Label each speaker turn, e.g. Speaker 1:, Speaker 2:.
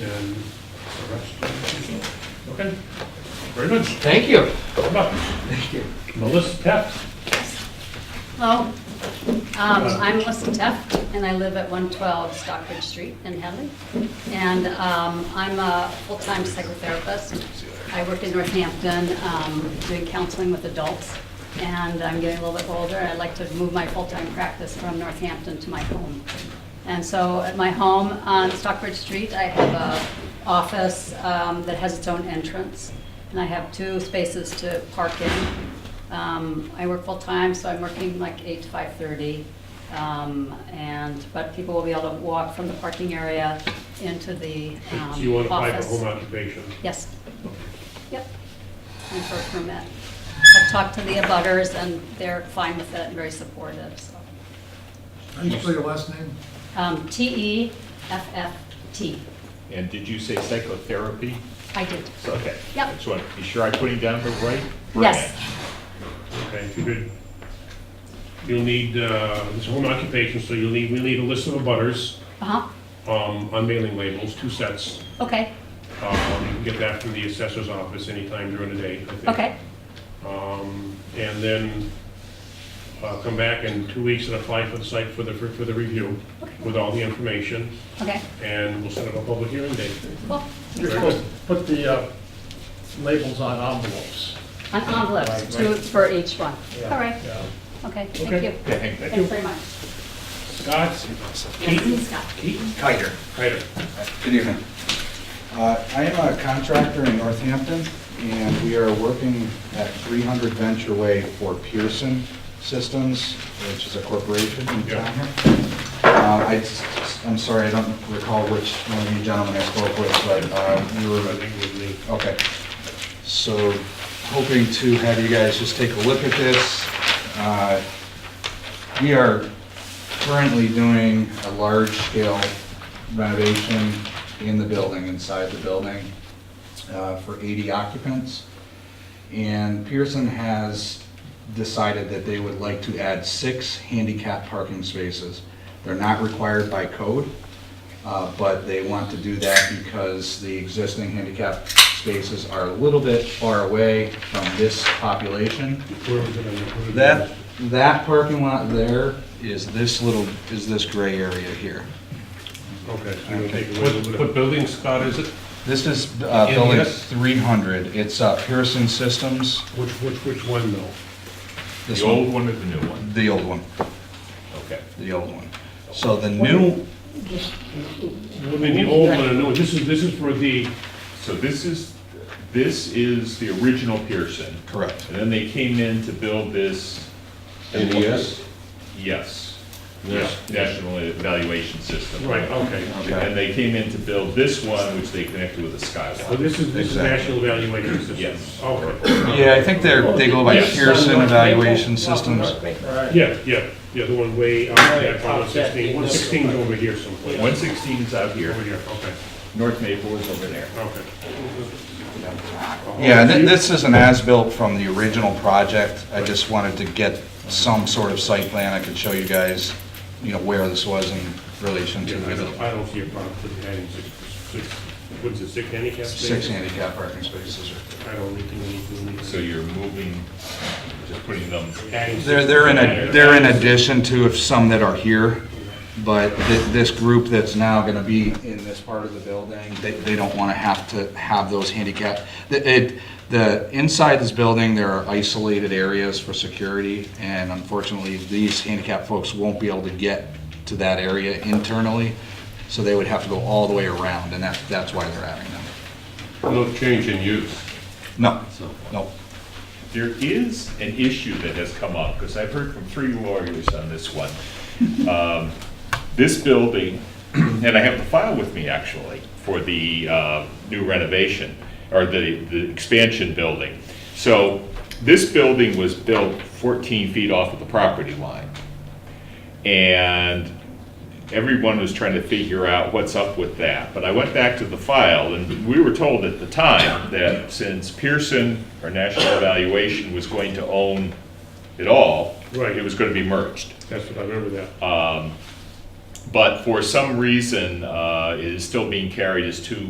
Speaker 1: and the rest of the Okay, very good.
Speaker 2: Thank you.
Speaker 1: Come up. Melissa Peps.
Speaker 3: Hello, um, I'm Melissa Teff, and I live at 112 Stockbridge Street in Hadley. And um, I'm a full-time psychotherapist. I work in Northampton um, doing counseling with adults, and I'm getting a little bit older. I'd like to move my full-time practice from Northampton to my home. And so at my home on Stockbridge Street, I have a office um, that has its own entrance, and I have two spaces to park in. Um, I work full-time, so I'm working like eight to five-thirty. Um, and, but people will be able to walk from the parking area into the, um,
Speaker 1: So
Speaker 3: office.
Speaker 1: you want to apply for home occupation?
Speaker 3: Yes. Yep. And for a permit. I've talked to the abutters and they're fine with it and very supportive, so.
Speaker 4: How do you spell your last name?
Speaker 3: Um, T-E-F-F-T.
Speaker 5: And did you say psychotherapy?
Speaker 3: I did.
Speaker 5: So, Okay.
Speaker 3: Yep.
Speaker 5: I just want to be sure I'm putting down the right branch.
Speaker 3: Yes.
Speaker 1: Okay, if you could, you'll need, uh, it's home occupation, so you'll need, we need a list of butters
Speaker 3: Uh-huh.
Speaker 1: on mailing labels, two sets.
Speaker 3: Okay,
Speaker 1: Um, You can get that from the assessor's office anytime during the day, I think.
Speaker 3: okay,
Speaker 1: Um, And then uh, come back in two weeks and apply for the site for the, for for the review with all the information,
Speaker 3: okay,
Speaker 1: and we'll set up a public hearing date.
Speaker 3: cool.
Speaker 6: You're supposed to put the uh, labels on envelopes.
Speaker 3: An envelope, two for each one. All right,
Speaker 6: Yeah.
Speaker 3: okay, thank
Speaker 1: Okay.
Speaker 3: you.
Speaker 5: Okay, thank you.
Speaker 3: Thanks very much.
Speaker 1: Scott?
Speaker 3: Yes,
Speaker 1: Keaton?
Speaker 3: Scott.
Speaker 1: Keaton?
Speaker 7: Kiger.
Speaker 1: Kiter.
Speaker 7: Good evening. Uh, I am a contractor in Northampton, and we are working at 300 Venture Way for Pearson Systems, which is a corporation in
Speaker 1: Yeah.
Speaker 7: town here. Uh, I s- I'm sorry, I don't recall which one of you gentlemen I spoke with, but uh, we
Speaker 1: I
Speaker 7: were
Speaker 1: think with me.
Speaker 7: Okay. So hoping to have you guys just take a look at this. Uh, We are currently doing a large-scale renovation in the building, inside the building, uh, for 80 occupants. And Pearson has decided that they would like to add six handicap parking spaces. They're not required by code, uh, but they want to do that because the existing handicap spaces are a little bit far away from this population.
Speaker 1: Where was it on the-
Speaker 7: That, that parking lot there is this little, is this gray area here.
Speaker 1: Okay, so you're gonna take away a little
Speaker 5: What
Speaker 1: bit
Speaker 5: what
Speaker 1: of-
Speaker 5: building, Scott, is it?
Speaker 7: This is uh, building
Speaker 5: Yes.
Speaker 7: 300. It's uh, Pearson Systems.
Speaker 1: Which, which, which one though?
Speaker 7: This
Speaker 5: The old one or the new one?
Speaker 7: The old one,
Speaker 5: Okay.
Speaker 7: the old one. So the new,
Speaker 1: I mean, the old one, and the new one. this is, this is for the,
Speaker 5: So this is, this is the original Pearson.
Speaker 7: correct.
Speaker 5: And then they came in to build this.
Speaker 8: NES? Yes.
Speaker 5: Yes. Yeah, National Evaluation System.
Speaker 1: right, okay.
Speaker 5: And they came in to build this one, which they connected with a
Speaker 1: So
Speaker 5: skywalk.
Speaker 1: this is, this is
Speaker 7: Exactly.
Speaker 1: national evaluation system?
Speaker 5: Yes.
Speaker 1: Okay.
Speaker 7: Yeah, I think they're, they go by
Speaker 5: Yes.
Speaker 7: Pearson Evaluation Systems.
Speaker 6: Right.
Speaker 1: Yeah, yeah, yeah, the one way uh, out there,
Speaker 6: Right,
Speaker 1: one sixteen, oh one sixteen's over here someplace.
Speaker 5: One sixteen's out here,
Speaker 1: Over here, okay,
Speaker 5: North Maple is over there.
Speaker 1: okay.
Speaker 7: Yeah, thi- this is an as-built from the original project. I just wanted to get some sort of site plan. I could show you guys, you know, where this was in relation to
Speaker 1: Yeah, I don't,
Speaker 7: the
Speaker 1: I don't see a problem with adding six, six, what's it, six handicap spaces?
Speaker 7: six handicap parking spaces.
Speaker 1: I don't think we need, we need.
Speaker 5: So you're moving, just putting them,
Speaker 1: adding six-
Speaker 7: They're, they're in a, they're in addition to if some that are here, but thi- this group that's now gonna be in this part of the building, they, they don't wanna have to have those handicap. The, it, the, inside this building, there are isolated areas for security, and unfortunately, these handicap folks won't be able to get to that area internally, so they would have to go all the way around, and that's, that's why they're adding them.
Speaker 8: No change in use.
Speaker 7: No, no,
Speaker 5: there is an issue that has come up, because I've heard from three lawyers on this one. Um, This building, and I have the file with me actually, for the uh, new renovation, or the, the expansion building. So this building was built 14 feet off of the property line. And everyone was trying to figure out what's up with that. But I went back to the file, and we were told at the time that since Pearson, our national evaluation, was going to own it all,
Speaker 1: Right.
Speaker 5: it was going to be merged.
Speaker 1: That's what I remember that.
Speaker 5: But for some reason, uh, it is still being carried as two